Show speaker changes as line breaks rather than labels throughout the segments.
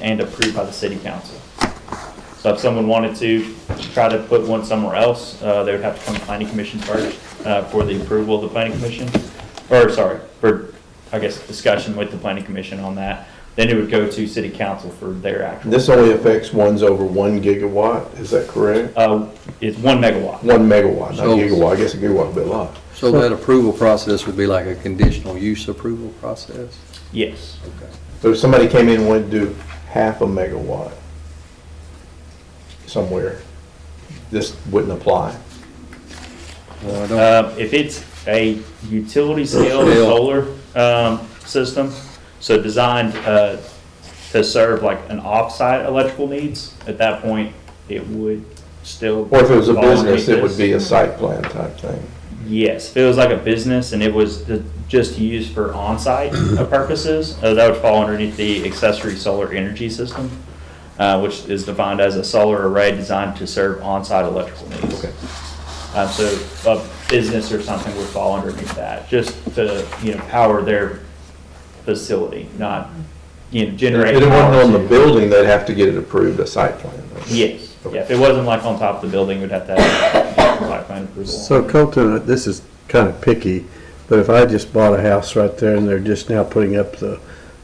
and approved by the city council. So if someone wanted to try to put one somewhere else, uh, they would have to come to planning commission first, uh, for the approval of the planning commission. Or, sorry, for, I guess, discussion with the planning commission on that. Then it would go to city council for their actual,
This only affects ones over one gigawatt, is that correct?
uh, it's one megawatt.
One megawatt, not
So-
gigawatt, I guess a gigawatt would be a lot.
So that approval process would be like a conditional use approval process?
Yes.
Okay.
So if somebody came in and wanted to do half a megawatt somewhere, this wouldn't apply.
Well, I don't,
Uh, If it's a utility scale
Scale.
solar um, system, so designed uh, to serve like an offsite electrical needs, at that point, it would still.
Or if it was a
fall underneath
business, it would
this.
be a site plan type thing.
Yes, if it was like a business and it was the- just used for on-site purposes, uh, that would fall underneath the accessory solar energy system, uh, which is defined as a solar array designed to serve on-site electrical needs.
Okay.
Um, so a business or something would fall underneath that, just to, you know, power their facility, not, you know,
If
generate.
it wasn't
power
on the
to-
building, they'd have to get it approved, a site plan.
Yes, yeah, if it wasn't like on top of the building, we'd have to have site plan approval.
So Colton, this is kind of picky, but if I just bought a house right there and they're just now putting up the,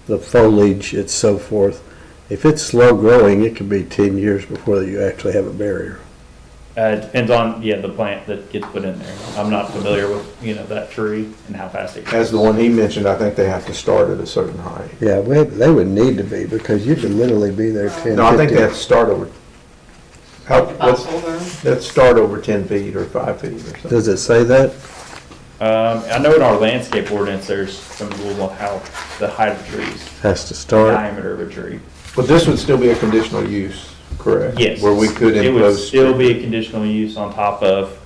the foliage and so forth, if it's slow growing, it could be ten years before you actually have a barrier.
Uh, it depends on, yeah, the plant that gets put in there. I'm not familiar with, you know, that tree and how fast it grows.
As the one he mentioned, I think they have to start at a certain height.
Yeah, we- they would need to be, because you could literally be there ten, fifteen.
No, I think they have to start over, how, what's,
Bipolar.
let's start over ten feet or five feet or something.
Does it say that?
Um, I know in our landscape ordinance, there's some rule on how the height of trees,
Has to start?
diameter of a tree.
But this would still be a conditional use, correct?
Yes.
Where we could
It would
impose.
still be a conditional use on top of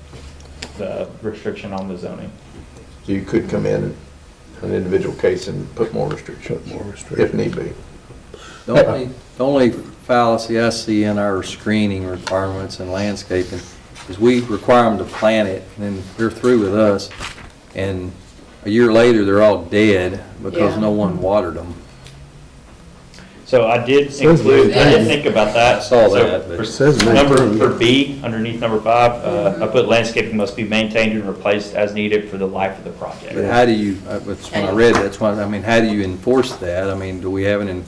the restriction on the zoning.
So you could come in, an individual case and put more restrictions,
More
if
restrictive.
need be.
the only, the only fallacy I see in our screening requirements and landscaping is we require them to plant it, and then they're through with us, and a year later, they're all dead because
Yeah.
no one watered them.
So I did
Says
include, I did
maintain.
think about that.
I saw
So
that, but-
for
Says
Number,
maintain.
for B, underneath number five, uh, I put landscaping must be maintained and replaced as needed for the life of the project.
But how do you, uh, that's when I read, that's why, I mean, how do you enforce that? I mean, do we have an, en-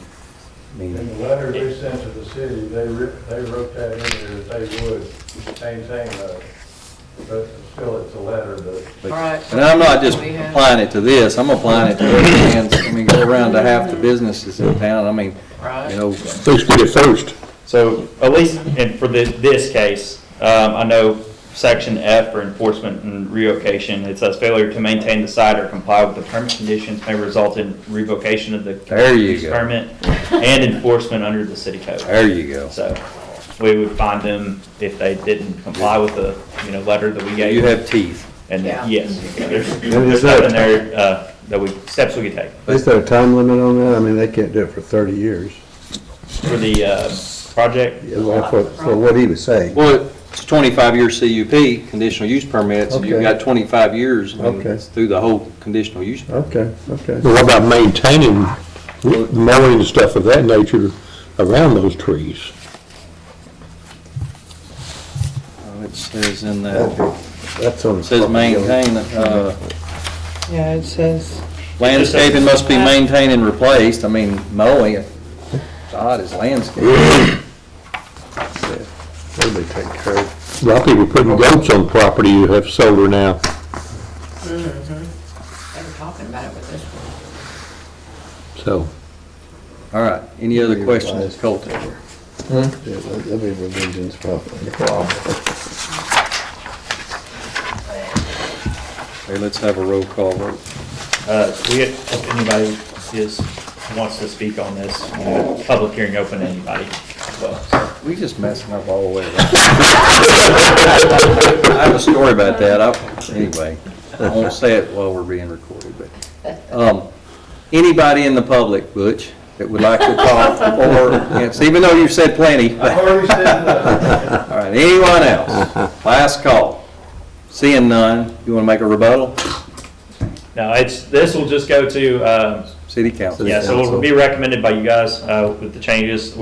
I
In the
mean,
letter they sent to the city, they writ, they wrote that in there that they would maintain that. But still, it's a letter, but
But-
All right.
And I'm not just
We have-
applying it to this, I'm applying it to other hands, I mean, go around to half the businesses in town, I mean, you
Right.
know,
First to get first.
So at least, and for this, this case, um, I know section F for enforcement and revocation, it says failure to maintain the site or comply with the permit conditions may result in revocation of the.
There you
use
go.
Permit and enforcement under the city code.
there you go.
So we would find them if they didn't comply with the, you know, letter that we gave.
You have teeth.
And
Yeah.
yes, there's,
is
there's
that-
nothing there, uh, that we, steps we could take
Is there a time limit on that? I mean, they can't do it for thirty years.
for the, uh, project.
Well, For, for what he was saying.
Well, it's a twenty-five year CUP, conditional use permits, and you've
Okay.
got twenty-five years, I mean,
Okay.
it's through the whole conditional use.
Okay, okay.
But what about maintaining mowing and stuff of that nature around those trees?
Uh, It says in the,
That's on.
it says maintain, uh,
Yeah, it says.
landscaping must be maintained and replaced, I mean, mowing, God, is landscaping.
It'll be taken care of.
A lot of people putting goats on property who have solar now.
They were talking about it with this one.
So,
All right, any other questions, Colton?
Yeah, that- that'd be revisions probably.
Okay, let's have a roll call vote.
Uh, we, had- if anybody is, wants to speak on this, you know, public hearing open to anybody as well. so.
We just messing up all the way around. I have a story about that, I, anyway, I won't say it while we're being recorded, but, um, anybody in the public, Butch, that would like to talk or, yes, even though you've said plenty,
I've already said that.
all right, anyone else? Last call. Seeing none, you wanna make a rebuttal?
No, it's, this will just go to, um,
City council.
yeah, so it'll be recommended by you guys, uh, with the changes.